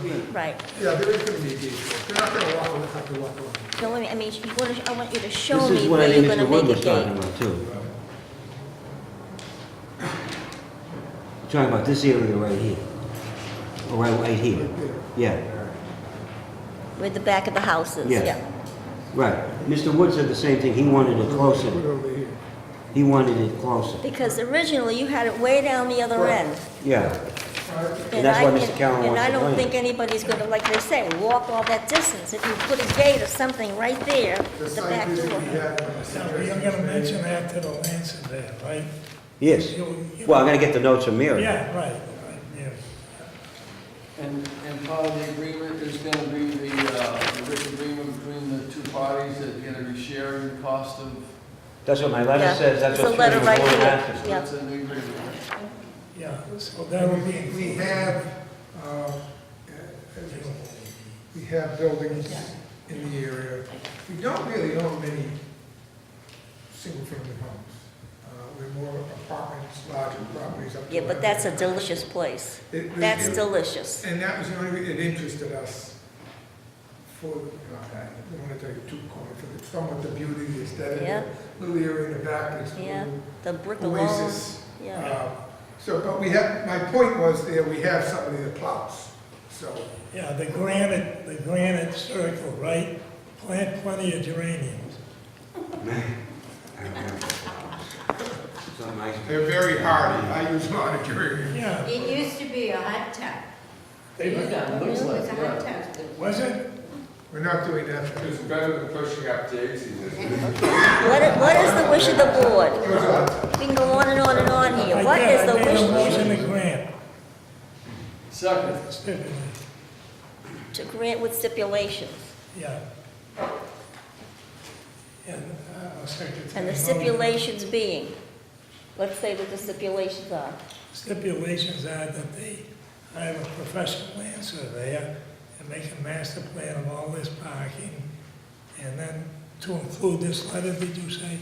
mean, Right. yeah, there is going to be a gate. They're not going to walk, around- have to walk around. No, I mean- I mean, you wanna- I want you to show This me is what I where think you're gonna Mr. Wood make was a talking gate. about too. Talking about this area right here. Or right, right here. Yeah, With the back of the houses, Yeah. yeah. right. Mr. Wood said the same thing. He wanted it Put it closer. over here. He wanted it closer. Because originally you had it way down the other Right. end. Yeah. All right? And that's I why can- Mr. Callen wants And I the don't plan. think anybody's gonna, like they say, walk all that distance. If you put a gate or something right there, The the site back visit we door. had. when I So said you're there's- gonna mention that to the land surveyor, right? Yes. You- you- Well, I'm gonna get the notes from Mary. Yeah, right, right, yeah. And, and part of the agreement is gonna be the, uh, the written agreement between the two parties that you're gonna be sharing the cost of, That's what my letter Yeah. says. That's It's a what letter Mr. right Wood here. asked us. Yeah. that's in the agreement. Yeah, so that would We, we be. have, uh, we have buildings in the area. We don't really own many single-family homes. Uh, We're more apartments, larger properties up to. Yeah, but that's a delicious place. It- it- That's it- delicious. And that was the only, re- it interested us for, I don't want to take too corny, for the- somewhat the beauty, the aesthetic, Yeah. the little area in the back, it's a Yeah, little the brick alone. oasis. Yeah. Uh, So, but we have, my point was there, we have somebody that plows, so. Yeah, the granite, the granite circle, right? Plant plenty of geraniums. Something I- They're very hardy, I use monitoring. Yeah, It used to be a hot tub. It was a hot tub. was it? We're not doing that. It's better than pushing up daisies, isn't it? What i- what is the wish of the board? It was a- We can go on and on and on here. I What did, is the I made wish a of the motion to grant, Second, stipulate, to grant with stipulations. yeah. And uh, I'll second. And the motion. stipulations being, let's say what the stipulations are. Stipulations are that they hire a professional land surveyor and make a master plan of all this parking, and then to include this letter, did you say?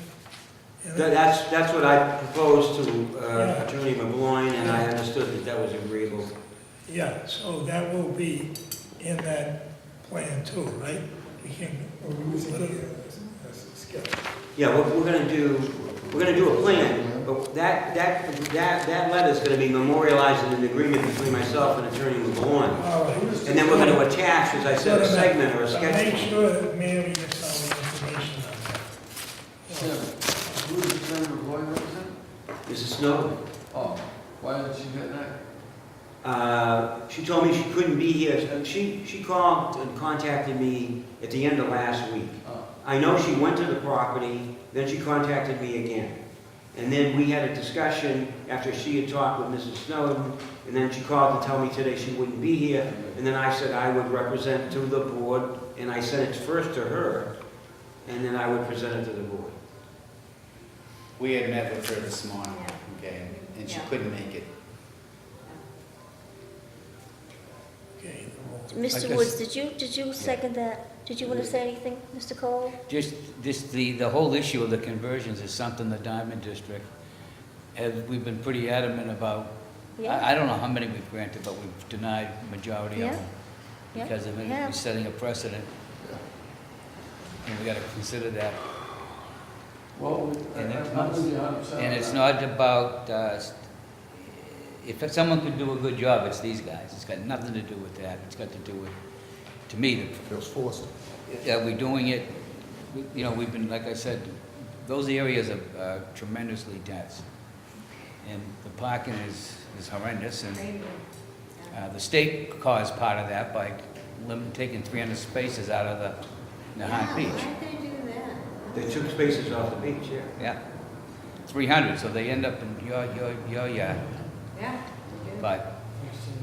And That- then- That's, that's what I proposed to uh, Attorney McGloin, and I understood that that was agreeable. Yeah, so that will be in that plan too, right? We can, We're losing here. That's a sketch. Yeah, we're, we're gonna do, we're gonna do a plan, but that, that, that, that letter's gonna be memorialized in an agreement between myself and Attorney McGloin. all right. And then we're gonna attach, as I said, a segment or a But sketch. Make plan. sure that Mary gets all the information on that. Tim, who is the attorney going to represent? Mrs. Snowden, Oh, why didn't you get that? uh, she told me she couldn't be here, and she, she called and contacted me at the end of last week. Oh, I know she went to the property, then she contacted me again. And then we had a discussion after she had talked with Mrs. Snowden, and then she called to tell me today she wouldn't be here. And then I said I would represent to the board, and I sent it first to her, and then I would present it to the board. We had met with her this morning, Yeah. okay, and she Yeah. couldn't make it. Okay, well, Mr. guess- Woods, did you, did you second that? Did you want to say anything, Mr. Cole? Just, this, the, the whole issue of the conversions is something the Diamond District, has we've been pretty adamant about, Yeah? I, I don't know how many we've granted, but we've denied majority Yeah, of them. yeah, Because of it, we have. it's setting a precedent. And we gotta consider that. Well, I- And it's I'm not- with you a hundred percent. And it's on not about, uh, s- if someone could do a good job, it's these guys. It's got nothing to do with that. It's got to do with, to me, the Feels forced. Yeah, we're doing it, we- you know, we've been, like I said, those areas are uh, tremendously dense. And the parking is, is horrendous, and Rainbow. uh, the state caused part of that by lim- taking 300 spaces out of the Yeah, Nahant Beach. Why'd they do that? They took spaces off the beach, yeah. Yeah, 300, so they end up in your, your, your yard. Yeah. they do. But,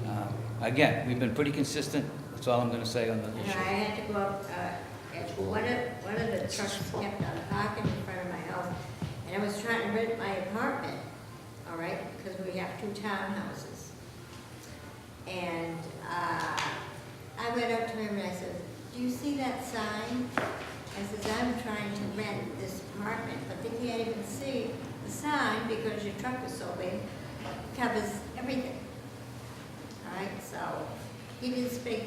uh, again, we've been pretty consistent, that's all I'm gonna say on the And I issue. had to go up, uh, and one of, one of the trucks kept on parking in front of my house, and I was trying to rent my apartment, all right, because we have two townhouses. And, uh, I went up to him and I said, do you see that sign? I says, I'm trying to rent this apartment, but they can't even see the sign because your truck is so big, covers everything. All right, so, he didn't speak